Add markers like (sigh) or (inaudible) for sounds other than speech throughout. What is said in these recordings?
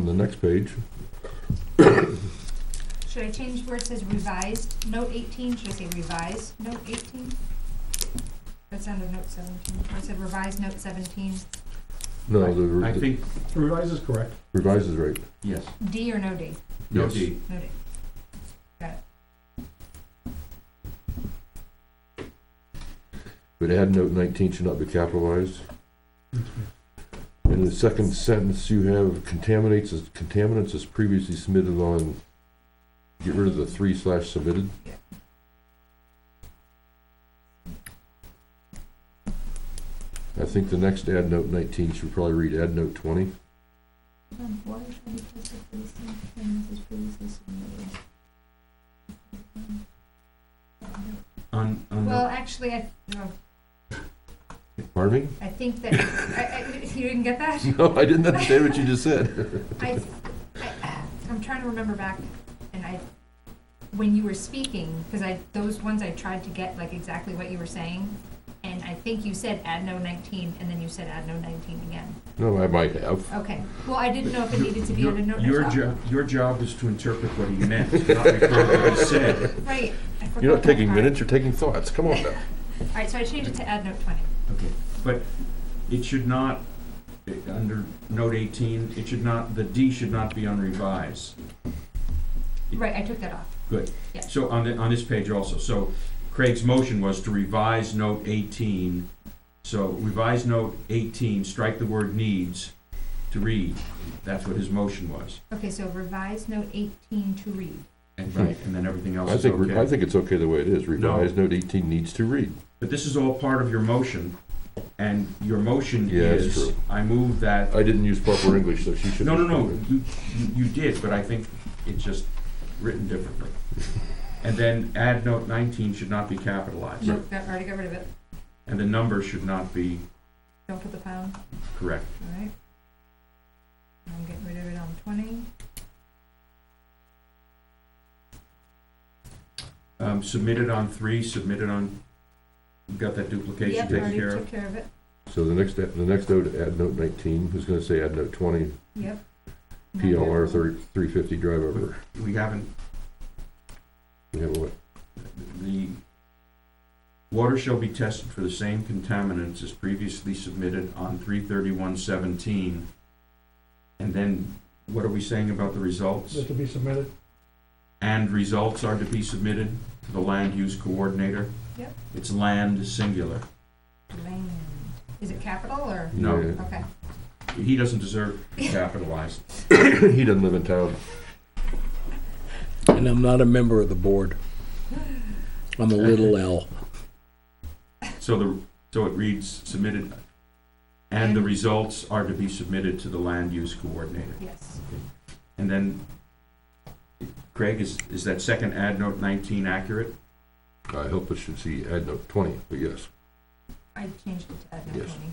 the next page. Should I change where it says revised, note eighteen, should I say revised, note eighteen? That's under note seventeen, I said revised note seventeen, No, the I re- think, Revise is correct. revised is right. yes, D or no D? no Yes. D. No D. Got it. But add note nineteen should not be capitalized. In the second sentence, you have contaminates, as- contaminants as previously submitted on, get rid of the three slash submitted. I think the next add note nineteen should probably read add note twenty. Um, water shall be tested for the same things as previously submitted. Um, On, on, Well, the- actually, I, no, Pardon I think that, I, I, you didn't get that? me? (laughs) No, I didn't understand what you just said. (laughs) I, I, I'm trying to remember back, and I, when you were speaking, because I, those ones I tried to get like exactly what you were saying, and I think you said add no nineteen, and then you said add no nineteen again. No, I might have. Okay, well, I didn't know if it needed to be your, on a note. your or not. job, your job is to interpret what he meant, not record what he said. Right. I forgot You're not that taking part. minutes, you're taking thoughts. Come on now. All right, so I changed it to add note twenty. Okay, but it should not, eh, under note eighteen, it should not, the D should not be on revise. Right, I took that off. Good. Yeah. So on the, on this page also, so Craig's motion was to revise note eighteen. So revise note eighteen, strike the word needs to read. That's what his motion was. Okay, so revise note eighteen to read. And right, and then everything else Hmm. I is think, we're- I okay. think it's okay the way it is. Revised note eighteen needs to read. But this is all part of your motion, and your motion Yeah, it's is, true. I move that, I didn't use proper English, so she should. no, no, no, you, you- you did, but I think it's just written (laughs) differently. And then add note nineteen should not be capitalized, Nope, got, already got rid of it. and the number should not be Don't put the pound. correct. All right. I'm getting rid of it on twenty. Um, submitted on three, submitted on, you got that duplication Yep, taken already care of? took care of it. So the next, the next note, add note nineteen, who's gonna say add note twenty, Yep. PLR thirty, three fifty drive over. We haven't, Yeah, what, the water shall be tested for the same contaminants as previously submitted on three thirty-one seventeen. And then, what are we saying about the results? That to be submitted. And results are to be submitted to the land use coordinator? Yep. It's land singular. Land. Is it capital or? No. Yeah. Okay. He doesn't deserve capitalized. (coughs) He doesn't live in town. And I'm not a member of the board. I'm a (laughs) little L. So the, so it reads submitted, and the results are to be submitted to the land use coordinator. Yes. And then, Craig, is, is that second ad note nineteen accurate? I hope it should see add note twenty, but yes. I changed it to add no Yes. twenty.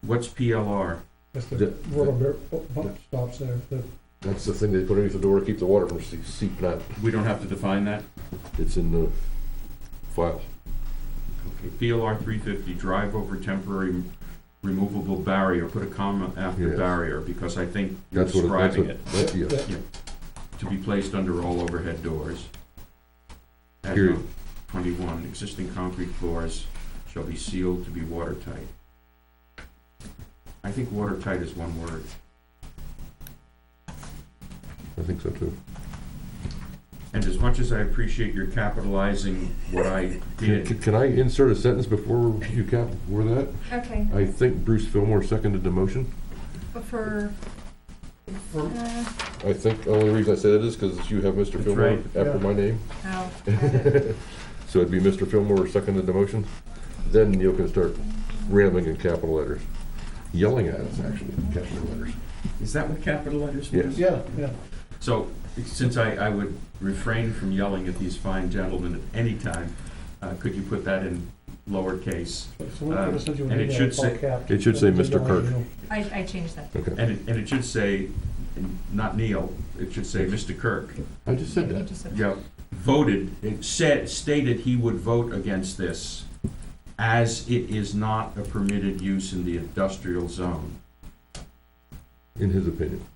What's PLR? That's The- the rubber bear- bu- bump stops there. The- That's the thing they put underneath the door, to keep the water from se- seeping out. We don't have to define that? It's in the file. Okay, PLR three fifty, drive over temporary removable barrier, put a comma after Yes. barrier, because I think you're That's what, it- that's describing what, it, that- yes. to be placed under all overhead doors. Ad Period. note Twenty-one, existing concrete floors shall be sealed to be watertight. I think watertight is one word. I think so too. And as much as I appreciate your capitalizing what I Can, did, can I insert a sentence before you cap, before that? E. Okay, I think Bruce Fillmore seconded the motion. but for, for- uh, I think the only reason I say that is because you have Mr. That's Fillmore right. after Yeah. my name. (laughs) oh, got it. So it'd be Mr. Fillmore seconded the motion. Then Neil can start ramming in capital letters, yelling at us actually in capital letters. is that what capital letters Yes. mean? Yeah, yeah. So, since I, I would refrain from yelling at these fine gentlemen at any time, uh, could you put that in lowercase? So we're gonna send you an And it email, should it's all say- capped. it should say Just Mr. Kirk. don't know. I, I changed that. Okay, And it, and it should say, and not Neil, it should say Mr. Kirk. I just said You that. just said- Yeah, voted, it said, stated he would vote against this, as it is not a permitted use in the industrial zone. In his opinion,